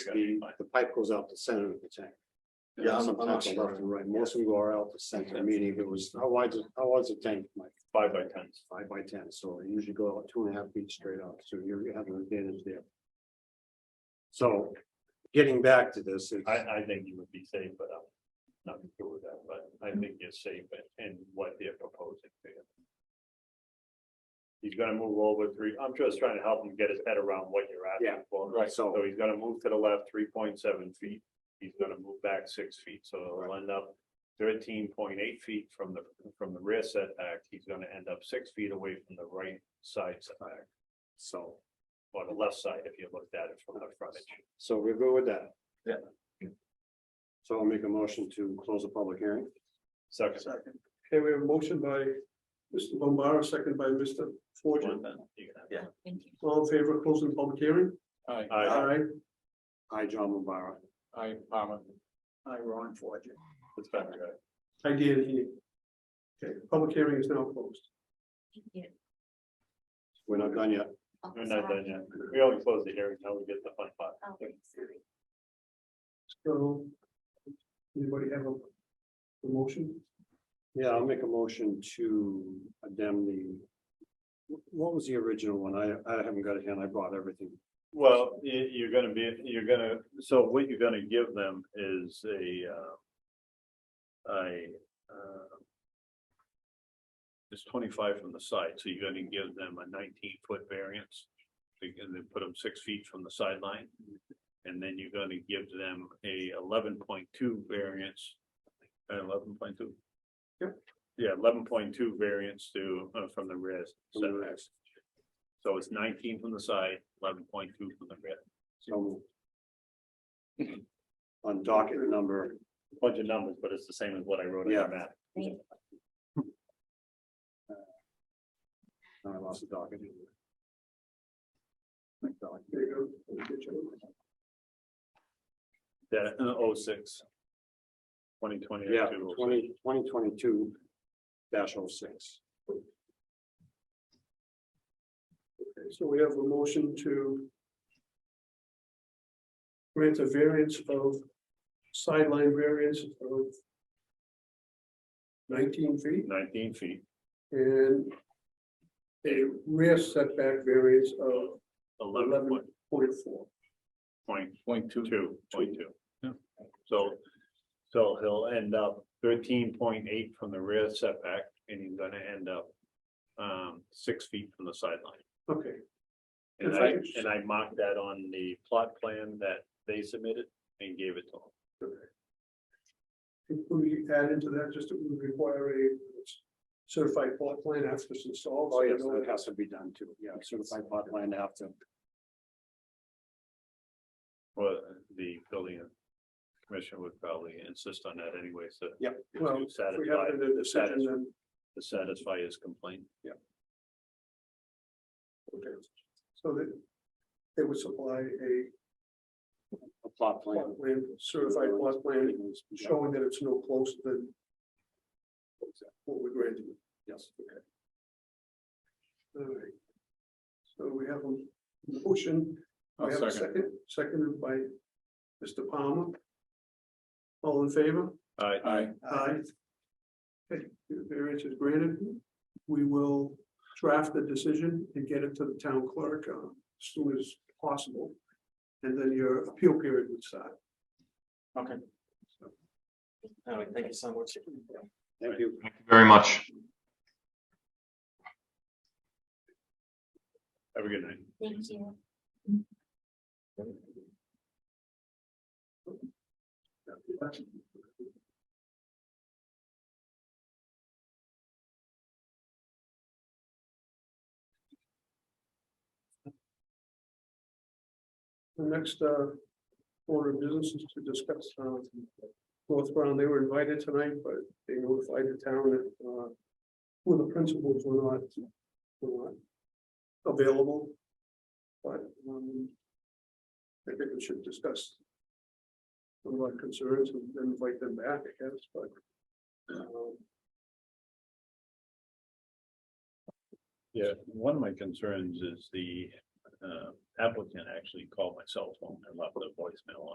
the, the pipe goes out the center of the tank. Yeah, I'm- I'm Sometimes not sure. Left and right, most of them go out the center, meaning it was, how wide, how wide's the tank, Mike? Five by tens. Five by ten, so they usually go out two and a half feet straight up, so you're you have an advantage there. So, getting back to this, it's- I, I think you would be safe, but I'm not sure with that, but I Mm-hmm. think you're safe in, in what they're proposing to you. He's gonna move over three, I'm just trying to help him get his head around what you're Yeah, asking for. right. So he's gonna move to the left three point seven feet, he's gonna move back six feet, so it'll end up thirteen point eight feet from the, from the rear setback, he's gonna end up six feet away from the right side setback, so, or the left side if you looked at it from the frontage. so we're good with that. Yeah. So I'll make a motion to close the public hearing. Second. Second. Okay, we have a motion by Mr. Bombara, second by Mr. Fortune. Yeah. All in favor of closing the public hearing? Aye. Hi, John Mubara. Aye, Palmer. Aye, Ron Fortune. It's better, guys. I did, he. Okay, public hearing is now closed. We're not done yet. We're not done yet. We only close the hearing now we get the fun part. So. Anybody have a? a motion? Yeah, I'll make a motion to condemn the. What was the original one? I, I haven't got it in. I brought everything. Well, you, you're gonna be, you're gonna, so what you're gonna give them is a, uh, a, uh, it's twenty-five from the side, so you're gonna give them a nineteen-foot variance. And then put them six feet from the sideline. And then you're gonna give them a eleven point two variance. Uh, Eleven point two? Yep. Yeah, eleven point two variance to, uh, from the rear From the rear. setbacks. So it's nineteen from the side, eleven point two from the rear. So. On docket number, Bunch of numbers, but it's the same as what I wrote on your map. no, I lost the docket. Docket. That, oh, six. Twenty oh twenty. Yeah, twenty, twenty twenty-two dash oh six. Okay, So we have a motion to. Grant a variance of sideline variance of. Nineteen feet Nineteen feet, and. A rear setback variance of eleven eleven point, point four. point, point two, two, point two. So, so he'll end up thirteen point eight from the rear setback, and he's gonna end up um, six feet from the sideline. Okay, And If I, I could just- and I marked that on the plot plan that they submitted and gave it to them. could we add into that just to require a certified plot plan after it's installed? Oh, yes, that has to be done too. Yeah, certified plot plan after. Well, the building commission would probably insist on that anyway, so. Yep. To Well, If we have satisfy, it in the decision, satis- then, to satisfy his complaint. okay, so that they would supply a A plot plan. plot plan, certified plot plan, Sure. showing that it's no closer than what we granted. Yes. All right. So we have a motion, we have a second, seconded by Mr. Palmer. All in favor? All right, Aye. Okay, the variance is granted. We will draft the decision and get it to the town clerk uh, as soon as possible. And then your appeal period would start. Okay. Anyway, thank you so much. Thank you. very much. have a good night. Thank you. The next uh, order of business is to discuss uh, North Brown. They were invited tonight, but they notified the town that uh, who the principals were not were not available. But um, I think we should discuss some of our concerns and then invite them back, I guess, but um, Yeah, one of my concerns is the uh, applicant actually called my cell phone and left a voicemail